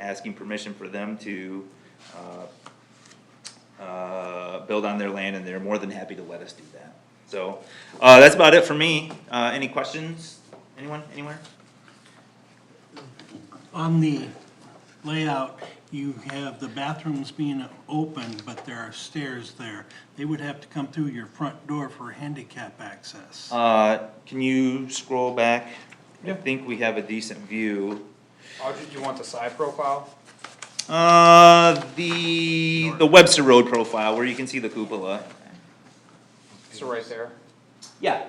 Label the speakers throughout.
Speaker 1: asking permission for them to, uh, uh, build on their land, and they're more than happy to let us do that. So, uh, that's about it for me. Uh, any questions? Anyone, anywhere?
Speaker 2: On the layout, you have the bathrooms being open, but there are stairs there. They would have to come through your front door for handicap access.
Speaker 1: Uh, can you scroll back? I think we have a decent view.
Speaker 3: Audrey, do you want the side profile?
Speaker 1: Uh, the, the Webster Road profile, where you can see the cupola.
Speaker 3: So right there.
Speaker 1: Yeah.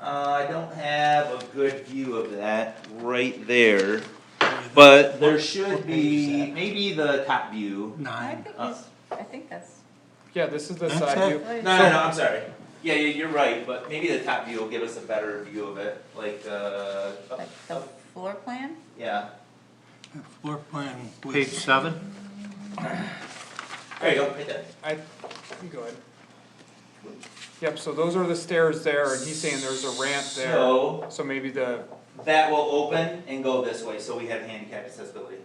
Speaker 1: Uh, I don't have a good view of that right there, but there should be maybe the top view.
Speaker 4: I
Speaker 2: Nine.
Speaker 4: think
Speaker 1: Uh,
Speaker 4: he's, I think that's,
Speaker 3: Yeah, this is the
Speaker 2: That's
Speaker 3: side
Speaker 2: it.
Speaker 3: view.
Speaker 1: No, no, no, I'm sorry. Yeah, yeah, you're right, but maybe the top view will give us a better view of it, like, uh, up-
Speaker 4: like oh. the
Speaker 1: up-
Speaker 4: floor plan?
Speaker 1: yeah.
Speaker 2: uh, Floor plan
Speaker 5: Page
Speaker 2: was,
Speaker 5: seven,
Speaker 1: There you go, right there.
Speaker 3: I, you go ahead. Yep, so those are the stairs there, and he's saying there's a ramp there,
Speaker 1: So,
Speaker 3: so maybe the,
Speaker 1: that will open and go this way, so we have handicap accessibility.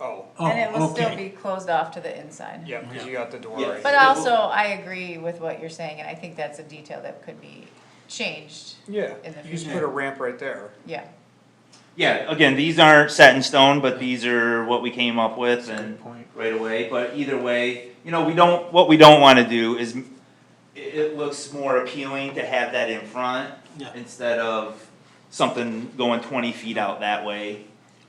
Speaker 3: oh,
Speaker 4: And it
Speaker 2: oh,
Speaker 4: will still
Speaker 2: okay.
Speaker 4: be closed off to the inside.
Speaker 3: yeah, cause you got the door
Speaker 1: Yeah.
Speaker 3: right.
Speaker 4: But
Speaker 3: here.
Speaker 4: also, I agree with what you're saying, and I think that's a detail that could be changed,
Speaker 3: Yeah,
Speaker 4: in the
Speaker 3: you just
Speaker 2: future.
Speaker 3: put a ramp right there.
Speaker 4: yeah.
Speaker 1: Yeah, again, these aren't set in stone, but these are what we came up with and
Speaker 5: point.
Speaker 1: right away, but either way, you know, we don't, what we don't wanna do is, m- it, it looks more appealing to have that in front
Speaker 2: Yeah.
Speaker 1: instead of something going twenty feet out that way,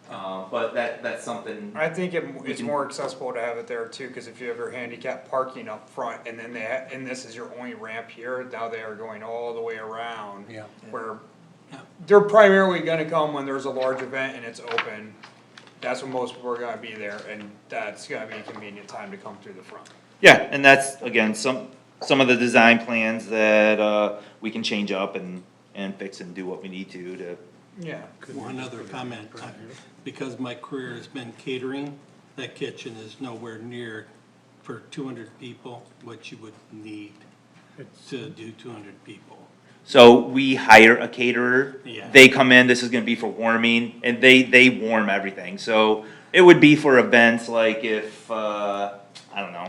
Speaker 1: uh, but that, that's something,
Speaker 3: I think it,
Speaker 1: We
Speaker 3: it's
Speaker 1: can-
Speaker 3: more accessible to have it there too, cause if you have your handicap parking up front, and then they, ha- and this is your only ramp here, now they are going all the way around.
Speaker 2: Yeah.
Speaker 3: Where
Speaker 2: Yeah.
Speaker 3: they're primarily gonna come when there's a large event and it's open, that's when most people are gonna be there, and that's gonna be a convenient time to come through the front.
Speaker 1: yeah, and that's, again, some, some of the design plans that, uh, we can change up and, and fix and do what we need to, to,
Speaker 3: Yeah.
Speaker 2: One other comment, uh, because my career has been catering, that kitchen is nowhere near for two hundred people, what you would need to do two hundred people.
Speaker 1: So we hire a caterer.
Speaker 2: Yeah.
Speaker 1: They come in, this is gonna be for warming, and they, they warm everything, so it would be for events like if, uh, I don't know.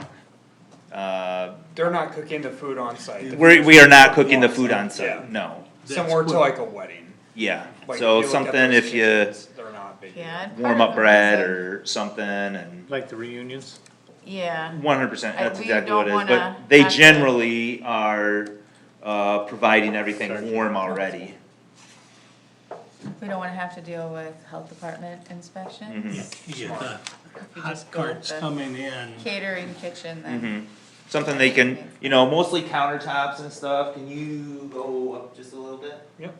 Speaker 1: Uh,
Speaker 3: They're not cooking the food on site.
Speaker 1: we're, we are not cooking the food on
Speaker 3: Yeah.
Speaker 1: site, no,
Speaker 3: Similar
Speaker 2: That's
Speaker 3: to like a wedding.
Speaker 1: yeah,
Speaker 3: Like,
Speaker 1: so
Speaker 3: if you look at
Speaker 1: something
Speaker 3: those
Speaker 1: if you
Speaker 3: kitchens, They're not big.
Speaker 4: Yeah. and part
Speaker 1: warm
Speaker 4: of
Speaker 1: up
Speaker 4: the
Speaker 1: bread
Speaker 4: reason-
Speaker 1: or something and.
Speaker 5: like the reunions,
Speaker 4: Yeah,
Speaker 1: One hundred percent,
Speaker 4: And
Speaker 1: that's
Speaker 4: we
Speaker 1: exactly
Speaker 4: don't
Speaker 1: what it is,
Speaker 4: wanna
Speaker 1: but they
Speaker 4: have to-
Speaker 1: generally are, uh, providing everything warm already.
Speaker 4: we don't wanna have to deal with health department
Speaker 1: Mm-hmm.
Speaker 4: inspections,
Speaker 2: You get the
Speaker 4: You
Speaker 2: hot
Speaker 4: just go with
Speaker 2: carts
Speaker 4: the-
Speaker 2: coming in.
Speaker 4: catering, kitchen,
Speaker 1: Mm-hmm.
Speaker 4: then,
Speaker 1: Something they can, you know, mostly countertops and stuff, can you go up just a little bit?
Speaker 3: Yep,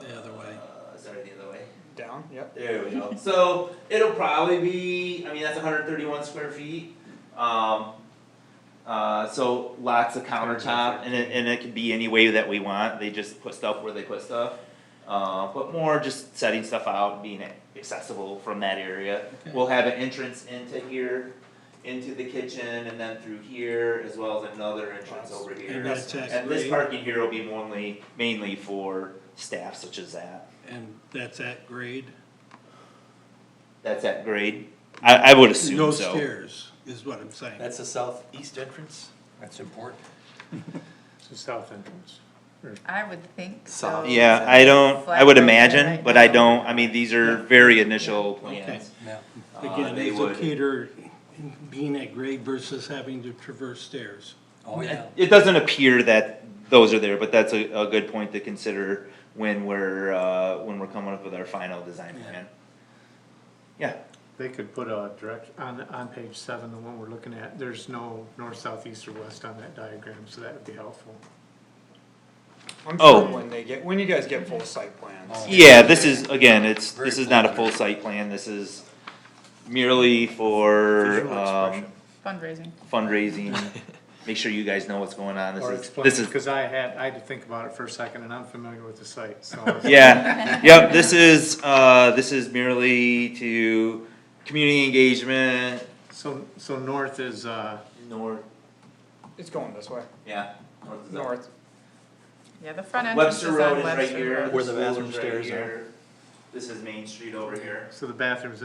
Speaker 2: The other way.
Speaker 1: Uh, Sorry, the other way.
Speaker 3: down, yep.
Speaker 1: There we go. So it'll probably be, I mean, that's hundred and thirty-one square feet. Um, uh, so lots of countertop and it, and it can be any way that we want. They just put stuff where they put stuff. Uh, but more just setting stuff out, being accessible from that area. We'll have an entrance into here, into the kitchen and then through here as well as another entrance over here.
Speaker 2: And that's
Speaker 1: And this
Speaker 2: actually-
Speaker 1: parking here will be mainly, mainly for staff such as that.
Speaker 2: And that's at grade?
Speaker 1: That's at grade? I, I would assume so.
Speaker 2: No stairs, is what I'm saying.
Speaker 6: That's the southeast entrance? That's important.
Speaker 5: it's the south entrance.
Speaker 4: I would think so.
Speaker 6: Oh, So-
Speaker 1: Yeah, I don't, I would
Speaker 4: Flat rate
Speaker 1: imagine,
Speaker 4: right
Speaker 1: but I
Speaker 4: now.
Speaker 1: don't, I mean, these are very initial
Speaker 2: Okay.
Speaker 1: plans.
Speaker 6: Yeah.
Speaker 1: Uh,
Speaker 2: Again,
Speaker 1: they
Speaker 2: as a
Speaker 1: would-
Speaker 2: caterer, being at grade versus having to traverse stairs.
Speaker 6: Oh, yeah.
Speaker 1: It doesn't appear that those are there, but that's a, a good point to consider when we're, uh, when we're coming up with our final design plan. Yeah,
Speaker 5: They could put a direct, on, on page seven, the one we're looking at, there's no north, south, east, or west on that diagram, so that would be helpful.
Speaker 3: I'm
Speaker 1: Oh.
Speaker 3: sure when they get, when you guys get full site plans.
Speaker 1: yeah, this is, again, it's, this is not a full site plan, this is merely for,
Speaker 5: Visual
Speaker 1: um,
Speaker 5: expression.
Speaker 4: Fundraising,
Speaker 1: fundraising. Make sure you guys know what's going on,
Speaker 5: Or
Speaker 1: this is,
Speaker 5: explain,
Speaker 1: this is
Speaker 5: cause I had, I had to think about it for a second, and I'm familiar with the site, so.
Speaker 1: Yeah, yep, this is, uh, this is merely to community engagement.
Speaker 5: So, so north is, uh,
Speaker 1: North,
Speaker 3: It's going this way,
Speaker 1: yeah. north is up.
Speaker 3: north.
Speaker 4: yeah, the front entrance is
Speaker 1: Webster Road
Speaker 4: on
Speaker 1: is right
Speaker 4: Webster
Speaker 1: here.
Speaker 4: Road.
Speaker 6: Where the
Speaker 1: school is
Speaker 6: bathroom
Speaker 1: right
Speaker 6: stairs are.
Speaker 1: here. This is Main Street over here.
Speaker 5: so the bathrooms